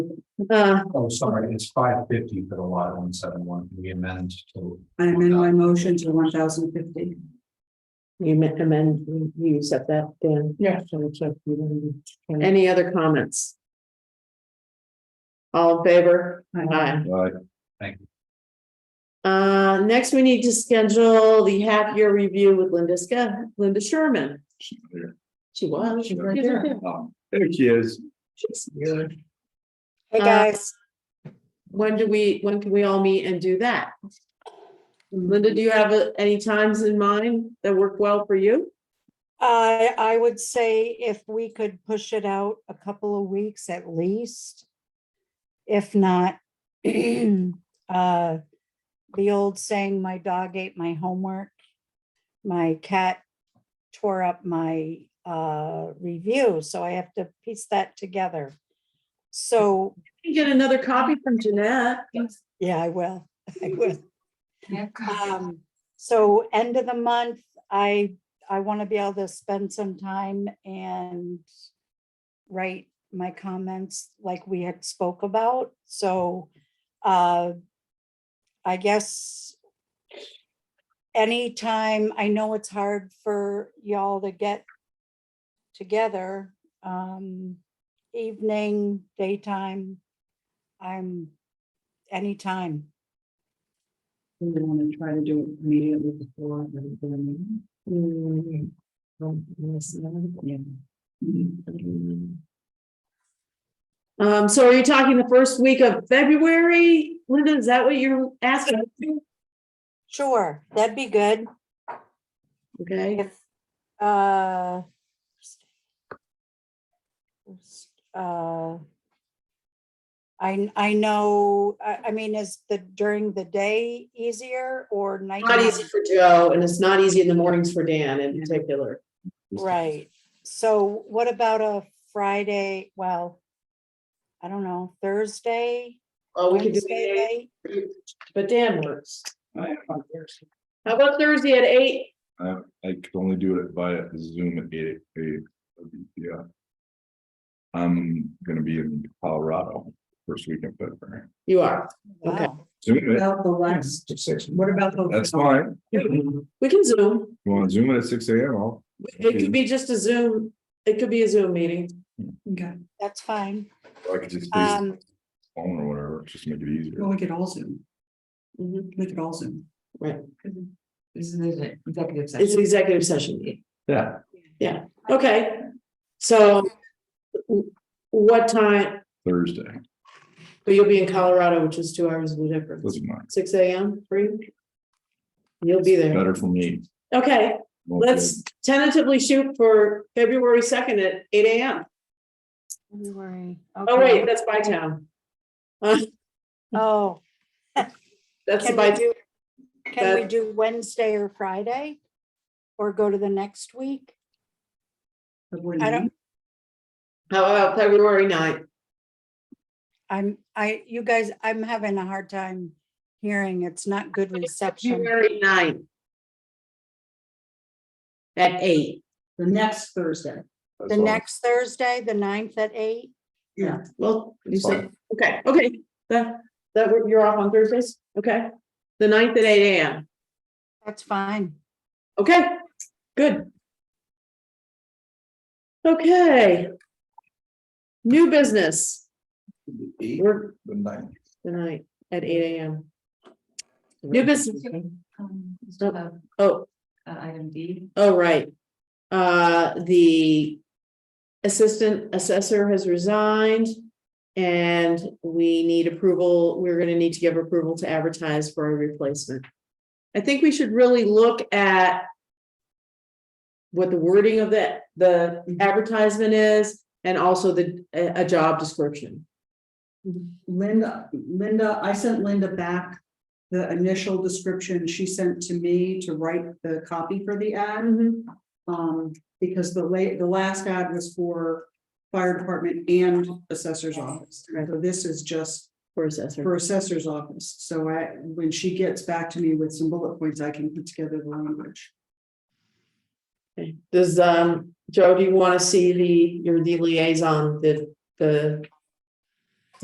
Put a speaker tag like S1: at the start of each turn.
S1: Uh,
S2: Oh, sorry, it's five fifty for the lot one seven one, we amend to.
S3: I amend my motion to one thousand fifty.
S1: you men- amend, you- you accept that, Dan?
S4: Yeah.
S1: Any other comments? All in favor? Aye.
S2: Right.
S1: Uh, next, we need to schedule the half-year review with Linda Sca, Linda Sherman.
S2: here.
S1: She was.
S4: She's right there.
S5: Um,
S2: There she is.
S6: Hey,
S1: Uh,
S6: guys,
S1: When do we, when can we all meet and do that? Linda, do you have uh, any times in mind that work well for you?
S6: I, I would say if we could push it out a couple of weeks at least. If not, uh, the old saying, my dog ate my homework. My cat tore up my, uh, review, so I have to piece that together. So,
S1: You Get another copy from Jeanette.
S6: yeah, I will, I will.
S1: Uh,
S6: Um, so end of the month, I, I want to be able to spend some time and write my comments like we had spoke about, so, uh, I guess anytime, I know it's hard for y'all to get together, um, evening, daytime, I'm, anytime.
S3: We want to try to do it immediately before the the meeting.
S1: Mm-hmm.
S3: Yeah.
S1: Um, so are you talking the first week of February? Linda, is that what you're asking?
S6: Sure, that'd be good.
S1: Okay,
S6: If, uh, uh, I, I know, I, I mean, is the, during the day easier or night?
S1: not easy for Joe and it's not easy in the mornings for Dan in particular.
S6: Right, so what about a Friday, well, I don't know, Thursday?
S1: Oh, we could do
S6: Wednesday
S1: it,
S6: night?
S1: but Dan works.
S5: I,
S1: How about Thursday at eight?
S5: I I could only do it via Zoom at eight, eight, yeah. I'm gonna be in Colorado first weekend, but
S1: You are. Okay.
S6: Wow.
S5: Zoom it.
S3: About the last,
S5: Six, six.
S3: what about the?
S5: That's fine. You
S1: We can Zoom.
S5: wanna Zoom it at six AM, I'll,
S1: It could be just a Zoom. It could be a Zoom meeting.
S3: Okay,
S6: That's fine,
S5: I could just use
S6: um,
S5: phone or whatever, just make it easier.
S3: well, we could all zoom,
S1: Mhm.
S3: we could all zoom.
S1: Right.
S3: This is an executive
S1: It's an executive session.
S2: Yeah.
S1: Okay. So w- what time?
S5: Thursday,
S1: But you'll be in Colorado, which is two hours of the difference.
S5: doesn't matter,
S1: six AM, three? You'll be there.
S5: better for me.
S1: Okay,
S5: Won't be-
S1: let's tentatively shoot for February second at eight AM.
S6: February.
S1: Oh, wait, that's by town.
S6: Oh,
S1: That's the
S6: Can we
S1: by,
S6: do, can we
S1: that-
S6: do Wednesday or Friday? Or go to the next week? I don't-
S1: how about February 9th?
S6: I'm, I, you guys, I'm having a hard time hearing. It's not good reception.
S1: February 9th At eight.
S3: The next Thursday.
S6: The next Thursday, the ninth at eight?
S3: Yeah.
S1: Well, you
S5: It's
S1: said, okay, okay, that, that, wor- you're off on Thursdays, okay? The 9th at eight AM,
S6: That's fine.
S1: okay, good. Okay. New business,
S5: Eight,
S1: we're
S5: the ninth.
S1: tonight at eight AM. New business,
S3: Still have
S1: oh,
S3: Uh, item D.
S1: oh, right. Uh, the assistant assessor has resigned. And we need approval, we're gonna need to give approval to advertise for a replacement. I think we should really look at what the wording of the, the
S3: Mm-hmm.
S1: advertisement is and also the, a, a job description.
S3: Linda, Linda, I sent Linda back the initial description she sent to me to write the copy for the ad.
S1: Mm-hmm.
S3: Um, because the late, the last ad was for fire department and assessor's office. So this is just
S1: For assessor,
S3: for assessor's office. So I, when she gets back to me with some bullet points, I can put together the language.
S1: does, um, Joe, do you wanna see the, your the liaison, the, the